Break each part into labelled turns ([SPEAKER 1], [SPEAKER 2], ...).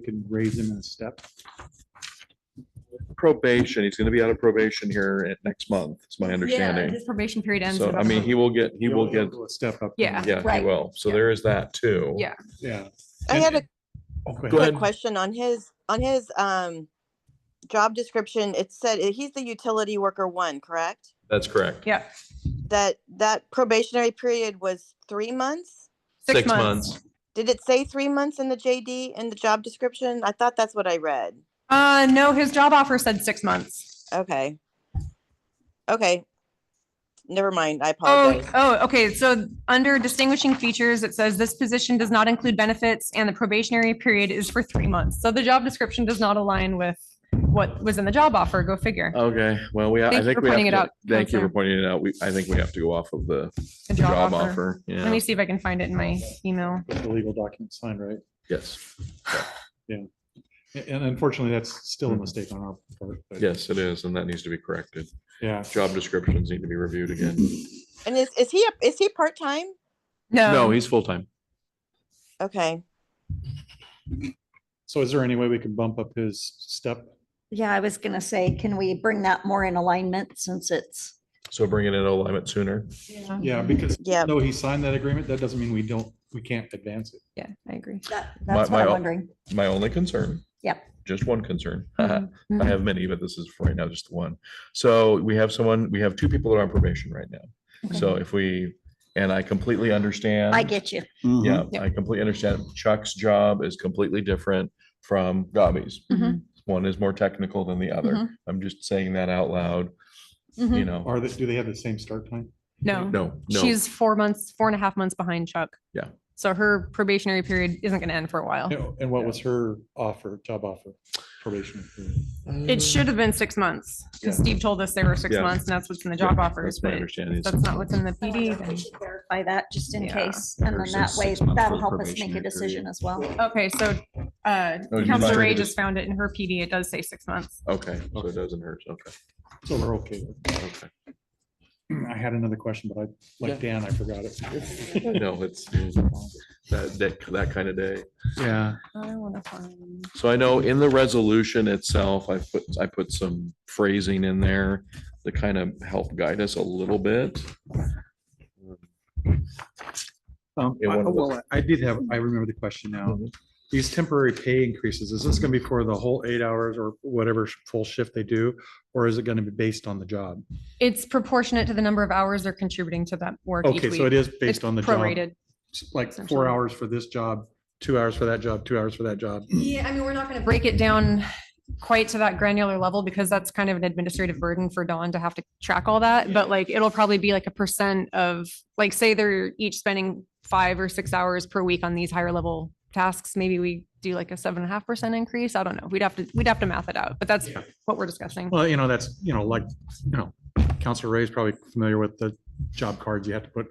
[SPEAKER 1] we could raise him in a step.
[SPEAKER 2] probation. He's gonna be out of probation here at next month, is my
[SPEAKER 3] Yeah,
[SPEAKER 2] understanding.
[SPEAKER 3] His probation period ends.
[SPEAKER 2] So,
[SPEAKER 3] in
[SPEAKER 2] I mean, he will get, he will
[SPEAKER 1] He'll- he'll
[SPEAKER 2] get,
[SPEAKER 1] go a Step up.
[SPEAKER 3] Yeah.
[SPEAKER 2] yeah, he
[SPEAKER 4] Right.
[SPEAKER 2] will. So
[SPEAKER 3] Yeah.
[SPEAKER 2] there is that too.
[SPEAKER 3] Yeah.
[SPEAKER 1] Yeah.
[SPEAKER 4] I
[SPEAKER 2] And-
[SPEAKER 4] had a
[SPEAKER 1] Oh, go
[SPEAKER 2] Go
[SPEAKER 1] ahead.
[SPEAKER 2] ahead.
[SPEAKER 4] quick question on his, on his, um, job description. It said uh, he's the utility worker one, correct?
[SPEAKER 2] That's correct.
[SPEAKER 3] Yeah,
[SPEAKER 4] That, that probationary period was three months?
[SPEAKER 3] six months.
[SPEAKER 4] Did it say three months in the JD in the job description? I thought that's what I read.
[SPEAKER 3] Uh, no, his job offer said six months.
[SPEAKER 4] Okay. Okay. Never mind. I
[SPEAKER 3] Oh,
[SPEAKER 4] apologize.
[SPEAKER 3] oh, okay. So under distinguishing features, it says this position does not include benefits and the probationary period is for three months. So the job description does not align with what was in the job offer. Go figure.
[SPEAKER 2] Okay, well, we, I
[SPEAKER 3] Thank you
[SPEAKER 2] think
[SPEAKER 3] for
[SPEAKER 2] we have
[SPEAKER 3] pointing it
[SPEAKER 2] to,
[SPEAKER 3] out,
[SPEAKER 2] thank you for
[SPEAKER 3] Counselor.
[SPEAKER 2] pointing it out. We, I think we have to go off of the
[SPEAKER 3] The
[SPEAKER 2] the job offer.
[SPEAKER 3] Let
[SPEAKER 2] Yeah,
[SPEAKER 3] me see if I can find it in my email.
[SPEAKER 1] Get The legal document signed, right?
[SPEAKER 2] yes,
[SPEAKER 1] A- And unfortunately, that's still a mistake on our part. but
[SPEAKER 2] yes, it is. And that needs to be corrected.
[SPEAKER 1] Yeah.
[SPEAKER 2] Job descriptions need to be reviewed again.
[SPEAKER 4] And is, is he, a- is he part-time?
[SPEAKER 2] No,
[SPEAKER 3] No,
[SPEAKER 2] he's full-time.
[SPEAKER 4] Okay.
[SPEAKER 1] So is there any way we can bump up his step?
[SPEAKER 5] Yeah, I was gonna say, can we bring that more in alignment since it's,
[SPEAKER 2] So bring it in alignment sooner.
[SPEAKER 1] Yeah, because
[SPEAKER 4] Yeah.
[SPEAKER 1] though he signed that agreement, that doesn't mean we don't, we can't advance it.
[SPEAKER 3] yeah, I agree.
[SPEAKER 5] that,
[SPEAKER 2] My-
[SPEAKER 5] that's
[SPEAKER 2] my
[SPEAKER 5] what I'm
[SPEAKER 2] al-
[SPEAKER 5] wondering.
[SPEAKER 2] My only concern.
[SPEAKER 5] Yep.
[SPEAKER 2] Just one concern.
[SPEAKER 3] Mhm,
[SPEAKER 2] I
[SPEAKER 3] mhm.
[SPEAKER 2] have many, but this is for right now, just the one. So we have someone, we have two people that are on probation right now.
[SPEAKER 3] Okay.
[SPEAKER 2] So if we, and I completely understand.
[SPEAKER 5] I get you.
[SPEAKER 1] Mm-hmm.
[SPEAKER 2] Yeah,
[SPEAKER 3] Yeah.
[SPEAKER 2] I completely understand. Chuck's job is completely different from Gobby's.
[SPEAKER 3] Mhm.
[SPEAKER 2] One is more technical than the other.
[SPEAKER 3] Mhm.
[SPEAKER 2] I'm just saying that out loud, you
[SPEAKER 3] Mhm.
[SPEAKER 2] know.
[SPEAKER 1] Are they, do they have the same start time?
[SPEAKER 3] No,
[SPEAKER 2] No, no,
[SPEAKER 3] she's four months, four and a half months behind Chuck.
[SPEAKER 2] Yeah.
[SPEAKER 3] So her probationary period isn't going to end for a while.
[SPEAKER 1] No, And what was her offer, job offer, probation? period?
[SPEAKER 3] It should have been six months. 'cause
[SPEAKER 2] Yeah.
[SPEAKER 3] Steve told us they were six
[SPEAKER 2] Yeah.
[SPEAKER 3] months and that's what's in the
[SPEAKER 2] Yeah,
[SPEAKER 3] job offers,
[SPEAKER 2] that's my
[SPEAKER 3] but
[SPEAKER 2] understanding.
[SPEAKER 3] if that's not what's in the
[SPEAKER 5] I
[SPEAKER 3] PD.
[SPEAKER 5] think we
[SPEAKER 3] then-
[SPEAKER 5] should Clarify that just in
[SPEAKER 3] Yeah.
[SPEAKER 5] case, and
[SPEAKER 6] Or
[SPEAKER 5] then that
[SPEAKER 6] six
[SPEAKER 5] way,
[SPEAKER 6] months for the
[SPEAKER 5] that'll help us make a
[SPEAKER 6] probationary
[SPEAKER 5] decision
[SPEAKER 6] period.
[SPEAKER 5] as well.
[SPEAKER 3] Okay, so uh,
[SPEAKER 2] Oh, you
[SPEAKER 3] Counselor
[SPEAKER 2] might-
[SPEAKER 3] Ray just found it in her PD. It does say six months.
[SPEAKER 2] Okay, so it doesn't hurt. Okay,
[SPEAKER 1] So we're okay. with
[SPEAKER 2] okay.
[SPEAKER 1] it. I had another question, but I, like Dan, I forgot it.
[SPEAKER 2] No, it's that, that, that kind of day.
[SPEAKER 1] Yeah.
[SPEAKER 3] I want to find.
[SPEAKER 2] So I know in the resolution itself, I put, I put some phrasing in there to kind of help guide us a little bit.
[SPEAKER 1] Um,
[SPEAKER 2] It
[SPEAKER 1] I-
[SPEAKER 2] won't-
[SPEAKER 1] well, I did have, I remember the question now.
[SPEAKER 2] Mhm.
[SPEAKER 1] These temporary pay increases, is this gonna be for the whole eight hours or whatever sh- full shift they do? Or is it gonna be based on the job?
[SPEAKER 3] It's proportionate to the number of hours they're contributing to that work each
[SPEAKER 1] Okay, so it
[SPEAKER 3] week.
[SPEAKER 1] is
[SPEAKER 3] It's
[SPEAKER 1] based on the job,
[SPEAKER 3] prorated.
[SPEAKER 1] s- like
[SPEAKER 3] essentially.
[SPEAKER 1] four hours for this job, two hours for that job, two hours for that job.
[SPEAKER 3] Yeah, I mean, we're not going to break it down quite to that granular level because that's kind of an administrative burden for Dawn to have to track all that. But like, it'll probably be like a percent of, like, say they're each spending five or six hours per week on these higher level tasks. Maybe we do like a seven and a half percent increase. I don't know. We'd have to, we'd have to math it out, but that's
[SPEAKER 1] Yeah.
[SPEAKER 3] what we're discussing.
[SPEAKER 1] Well, you know, that's, you know, like, you know, Counselor Ray's probably familiar with the job cards. You have to put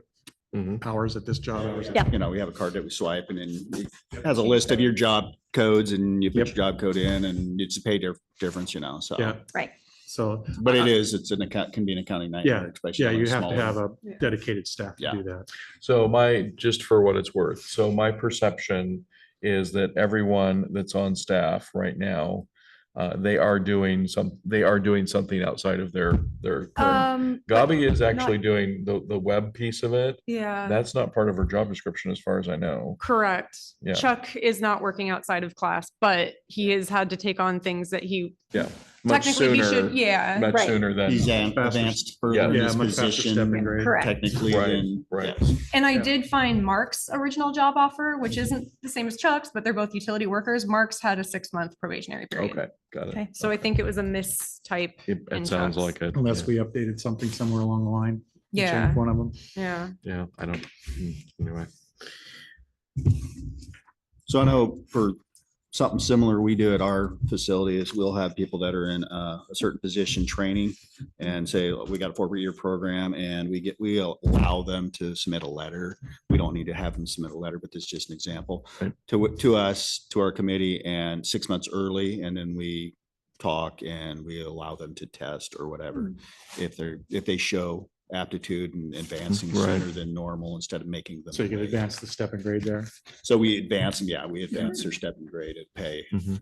[SPEAKER 2] Mhm.
[SPEAKER 1] hours at this job, hours at
[SPEAKER 5] Yeah.
[SPEAKER 6] You know, we have a card that we swipe and then it has a list of your job codes and you put your job code in and it's a pay dif- difference, you know, so.
[SPEAKER 1] Yeah.
[SPEAKER 5] Right.
[SPEAKER 1] So,
[SPEAKER 6] But it is, it's an account, can be an accounting nightmare. especially
[SPEAKER 1] yeah,
[SPEAKER 6] on
[SPEAKER 1] you have to
[SPEAKER 6] smaller-
[SPEAKER 1] have a
[SPEAKER 3] Yeah.
[SPEAKER 1] dedicated staff to
[SPEAKER 6] Yeah.
[SPEAKER 1] do that.
[SPEAKER 2] So my, just for what it's worth, so my perception is that everyone that's on staff right now, uh, they are doing some, they are doing something outside of their, their. current-
[SPEAKER 3] Um,
[SPEAKER 2] Gabi is actually doing the, the web piece of it.
[SPEAKER 3] yeah,
[SPEAKER 2] That's not part of her job description as far as I know.
[SPEAKER 3] correct.
[SPEAKER 2] Yeah.
[SPEAKER 3] Chuck is not working outside of class, but he has had to take on things that he
[SPEAKER 2] Much
[SPEAKER 3] technically he should,
[SPEAKER 2] sooner,
[SPEAKER 3] yeah.
[SPEAKER 2] much
[SPEAKER 5] Right.
[SPEAKER 2] sooner
[SPEAKER 6] He's
[SPEAKER 2] than,
[SPEAKER 6] an-
[SPEAKER 1] Faster-
[SPEAKER 6] advanced
[SPEAKER 2] Yeah.
[SPEAKER 6] further in
[SPEAKER 1] Yeah,
[SPEAKER 6] his
[SPEAKER 1] much faster step and
[SPEAKER 6] position
[SPEAKER 1] grade.
[SPEAKER 5] Correct.
[SPEAKER 6] technically
[SPEAKER 2] Right,
[SPEAKER 6] than.
[SPEAKER 2] right.
[SPEAKER 6] yeah.
[SPEAKER 3] And I
[SPEAKER 1] Yeah.
[SPEAKER 3] did find Mark's original job offer, which isn't the same as Chuck's, but they're both utility workers. Mark's had a six month probationary period.
[SPEAKER 2] okay, got it.
[SPEAKER 3] Okay, so I think it was a mistype.
[SPEAKER 2] It, it
[SPEAKER 3] And
[SPEAKER 2] sounds
[SPEAKER 3] jobs.
[SPEAKER 2] like it.
[SPEAKER 1] Unless we updated something somewhere along the line. and changed
[SPEAKER 3] Yeah,
[SPEAKER 1] One of them.
[SPEAKER 3] yeah.
[SPEAKER 2] Yeah, I don't, mm, anyway.
[SPEAKER 6] So I know for something similar we do at our facility is we'll have people that are in uh, a certain position training and say, "Look, we got a four-year program and we get, we allow them to submit a letter. We don't need to have them submit a letter, but this is just an example
[SPEAKER 2] Right.
[SPEAKER 6] to, wh- to us, to our committee and six months early. And then we talk and we allow them to test or whatever. If they're, if they show aptitude and advancing
[SPEAKER 2] Right.
[SPEAKER 6] sooner than normal instead of making them.
[SPEAKER 1] So you can
[SPEAKER 6] wait.
[SPEAKER 1] advance the step and grade there.
[SPEAKER 6] So we advance them, yeah, we advance their step and grade at pay.